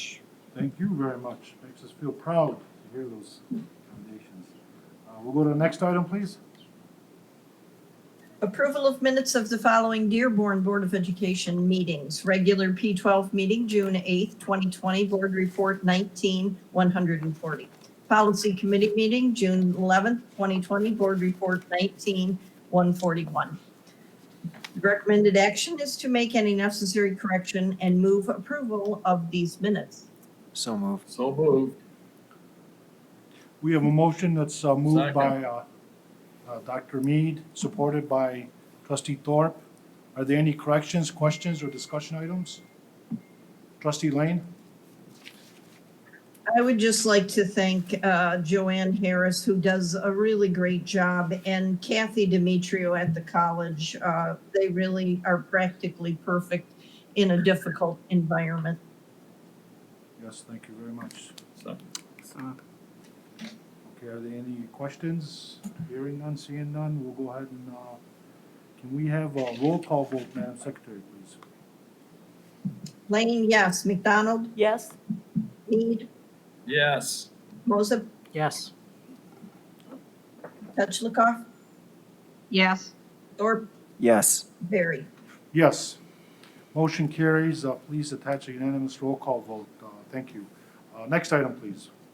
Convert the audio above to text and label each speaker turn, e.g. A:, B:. A: Thank you very much. Makes us feel proud to hear those commendations. Uh, We'll go to the next item, please.
B: Approval of minutes of the following Dearborn Board of Education meetings. Regular P12 meeting, June 8th, 2020, Board Report 19-140. Policy Committee meeting, June 11th, 2020, Board Report 19-141. Recommended action is to make any necessary correction and move approval of these minutes.
C: So moved.
D: So moved.
A: We have a motion that's uh, moved
D: Second.
A: by uh, uh, Dr. Mead, supported by trustee Thorpe. Are there any corrections, questions, or discussion items? Trustee Lane?
B: I would just like to thank uh, Joanne Harris, who does a really great job, and Kathy Demetrio at the college. Uh, They really are practically perfect in a difficult environment.
A: Yes, thank you very much.
D: Second.
A: Okay, are there any questions? Hearing none, seeing none, we'll go ahead and, uh, can we have a roll call vote, Madam Secretary, please?
B: Lane, yes. McDonald,
E: Yes.
B: Mead,
D: Yes.
B: Moses,
C: Yes.
B: Petlicoff,
F: yes,
B: Thorpe,
C: Yes.
B: Barry.
A: Yes. Motion carries. Uh, Please attach a unanimous roll call vote. Uh, Thank you. Uh, Next item, please.